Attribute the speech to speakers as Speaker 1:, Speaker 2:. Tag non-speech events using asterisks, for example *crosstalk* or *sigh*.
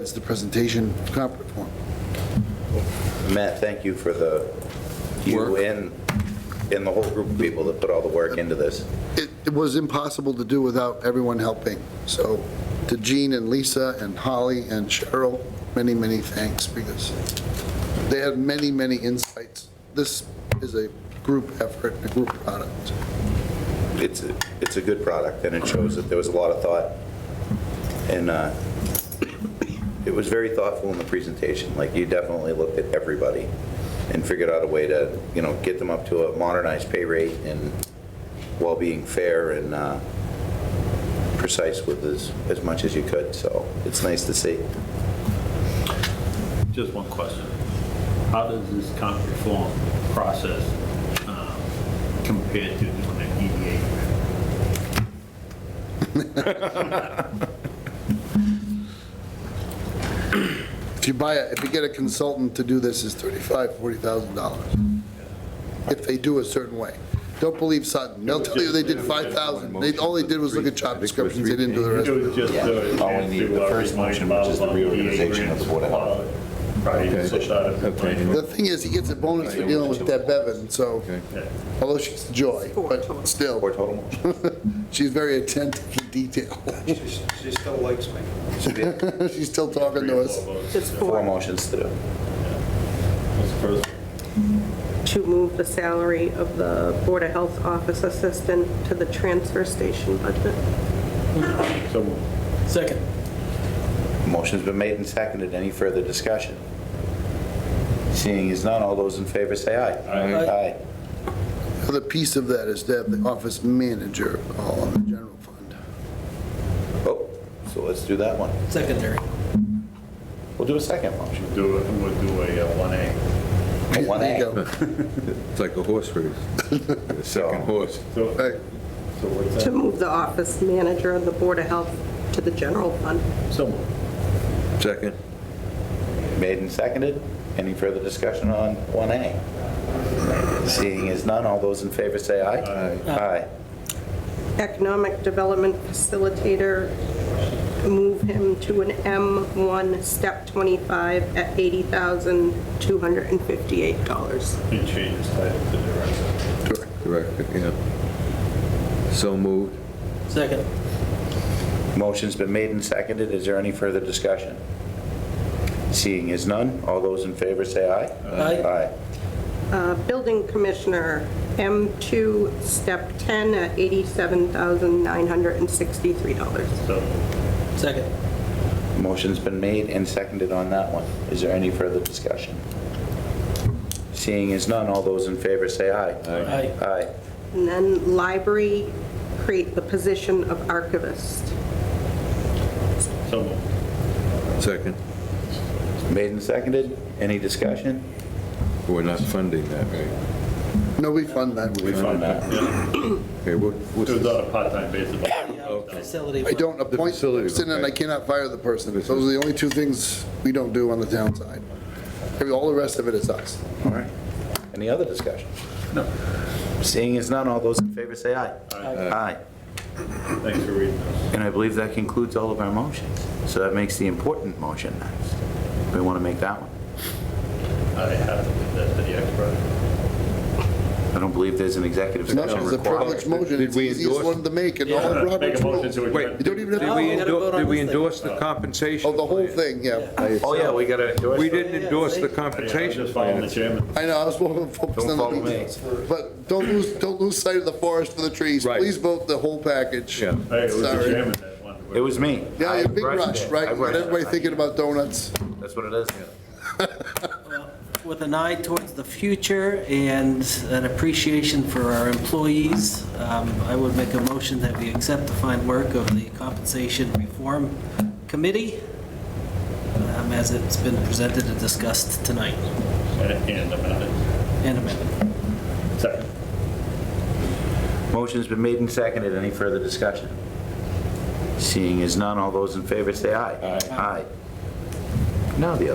Speaker 1: That's the presentation conference form.
Speaker 2: Matt, thank you for the, you
Speaker 1: Work.
Speaker 2: and, and the whole group of people that put all the work into this.
Speaker 1: It it was impossible to do without everyone helping. So to Gene and Lisa and Holly and Cheryl, many, many thanks because they had many, many insights. This is a group effort, and a group product.
Speaker 2: It's, a- it's a good product, and it shows that there was a lot of thought. And uh, it was very thoughtful in the presentation, like you definitely looked at everybody and figured out a way to, you know, get them up to a modernized pay rate and while being fair and uh, precise with as, as much as you could, so it's nice to see.
Speaker 3: Just one question. How does this comp reform process um, compare to doing E an EDA?
Speaker 1: If you buy, a- if you get a consultant to do this, it's $35,000, $40,000. If they do a certain way. Don't believe Sutton. They'll tell you they did 5,000. They, all they did was look at job descriptions. They didn't do the rest.
Speaker 3: It was just. uh,
Speaker 4: All we need, the first motion, which is the reorganization
Speaker 3: E
Speaker 4: of the Board of Health.
Speaker 3: Right, you switched out of the
Speaker 4: Okay.
Speaker 3: plan.
Speaker 1: The thing is, he gets a bonus for dealing with Deb Bevan, so, although she's a joy, but
Speaker 2: Four
Speaker 1: still,
Speaker 2: total motions.
Speaker 1: she's very attentive to detail. *laughs*
Speaker 5: She's- She still likes me.
Speaker 1: She's still talking to us.
Speaker 6: It's
Speaker 2: Four
Speaker 6: for,
Speaker 2: motions to do.
Speaker 3: That's the first one.
Speaker 6: to move the salary of the Board of Health Office Assistant to the transfer station budget.
Speaker 3: So moved.
Speaker 7: Second.
Speaker 2: Motion's been made and seconded. Any further discussion? Seeing as none, all those in favor say aye. Aye.
Speaker 1: The other piece of that is Deb, the office manager, all on the general fund.
Speaker 2: Oh, so let's do that one.
Speaker 7: Secondary.
Speaker 2: We'll do a second motion.
Speaker 3: Do it, we'll do a uh, 1A.
Speaker 2: One
Speaker 1: There you
Speaker 2: A.
Speaker 1: go.
Speaker 4: It's like a horse
Speaker 1: *laughs*
Speaker 4: race. The second horse.
Speaker 3: So
Speaker 1: Right.
Speaker 3: so what's
Speaker 6: To
Speaker 3: that?
Speaker 6: move the office manager of the Board of Health to the general fund.
Speaker 3: So moved.
Speaker 4: Second.
Speaker 2: Made and seconded. Any further discussion on 1A? Seeing as none, all those in favor say aye. Aye.
Speaker 6: Economic Development Facilitator, move him to an M1, Step 25, at $80,258.
Speaker 3: You change his title to director.
Speaker 4: Correct, yeah. So moved.
Speaker 7: Second.
Speaker 2: Motion's been made and seconded. Is there any further discussion? Seeing as none, all those in favor say aye.
Speaker 7: Aye.
Speaker 2: Aye.
Speaker 6: Uh, Building Commissioner, M2, Step 10, at $87,963.
Speaker 3: So moved.
Speaker 7: Second.
Speaker 2: Motion's been made and seconded on that one. Is there any further discussion? Seeing as none, all those in favor say aye.
Speaker 7: Aye.
Speaker 2: Aye.
Speaker 6: And then library, create the position of archivist.
Speaker 3: So moved.
Speaker 4: Second.
Speaker 2: Made and seconded, any discussion?
Speaker 4: We're not funding that, right?
Speaker 1: No, we fund that.
Speaker 2: We found that.
Speaker 4: Okay, what, what's
Speaker 3: It was
Speaker 4: the
Speaker 3: on a part-time basis. but-
Speaker 7: Facility.
Speaker 1: I don't appoint the
Speaker 4: facility,
Speaker 1: person and I
Speaker 4: okay.
Speaker 1: cannot fire the person. Those are the only two things we don't do on the town side. All the rest of it is us.
Speaker 2: All right. Any other discussion? No. Seeing as none, all those in favor say aye. Aye.
Speaker 3: Thanks for reading this.
Speaker 2: And I believe that concludes all of our motions. So that makes the important motion next. We want to make that one.
Speaker 3: I have to leave that to the expert.
Speaker 2: I don't believe there's an executive
Speaker 1: No,
Speaker 2: session
Speaker 1: it's a privileged
Speaker 2: required.
Speaker 1: motion.
Speaker 4: Did
Speaker 1: It's the
Speaker 4: we
Speaker 1: easiest
Speaker 4: endorse-
Speaker 1: one to make and all of
Speaker 3: Make
Speaker 1: Robert's
Speaker 3: a motion
Speaker 1: rules.
Speaker 3: to adjourn.
Speaker 4: Wait,
Speaker 1: You don't even have
Speaker 4: did
Speaker 1: to,
Speaker 4: we
Speaker 7: we gotta vote
Speaker 4: endorse,
Speaker 7: on
Speaker 4: did we
Speaker 7: this thing.
Speaker 4: endorse the
Speaker 1: oh,
Speaker 4: compensation?
Speaker 1: the whole thing, yeah.
Speaker 2: Oh, yeah, we got to endorse
Speaker 4: We
Speaker 2: it.
Speaker 4: didn't endorse the
Speaker 3: I'm
Speaker 4: compensation
Speaker 3: just following
Speaker 4: plan.
Speaker 3: the chairman.
Speaker 1: I know, I was more focused
Speaker 2: Don't
Speaker 1: on
Speaker 2: follow
Speaker 1: the
Speaker 2: me.
Speaker 1: details. But don't lose, don't lose sight of the forest for the trees.
Speaker 4: Right.
Speaker 1: Please vote the whole package.
Speaker 4: Yeah.
Speaker 3: Hey, it was the
Speaker 1: Sorry.
Speaker 3: chairman that wanted. to-
Speaker 2: It was me.
Speaker 1: Yeah,
Speaker 2: I
Speaker 1: you're big
Speaker 2: rushed
Speaker 1: rush,
Speaker 2: it.
Speaker 1: right?
Speaker 2: I
Speaker 1: You got
Speaker 2: rushed it.
Speaker 1: everybody thinking about donuts.
Speaker 2: That's what it is.
Speaker 7: With an eye towards the future and an appreciation for our employees, um, I would make a motion that we accept the fine work of the Compensation Reform Committee um, as it's been presented and discussed tonight
Speaker 3: And amended.
Speaker 7: and amended.
Speaker 3: Second.
Speaker 2: Motion's been made and seconded. Any further discussion? Seeing as none, all those in favor say aye. Aye. Now the other.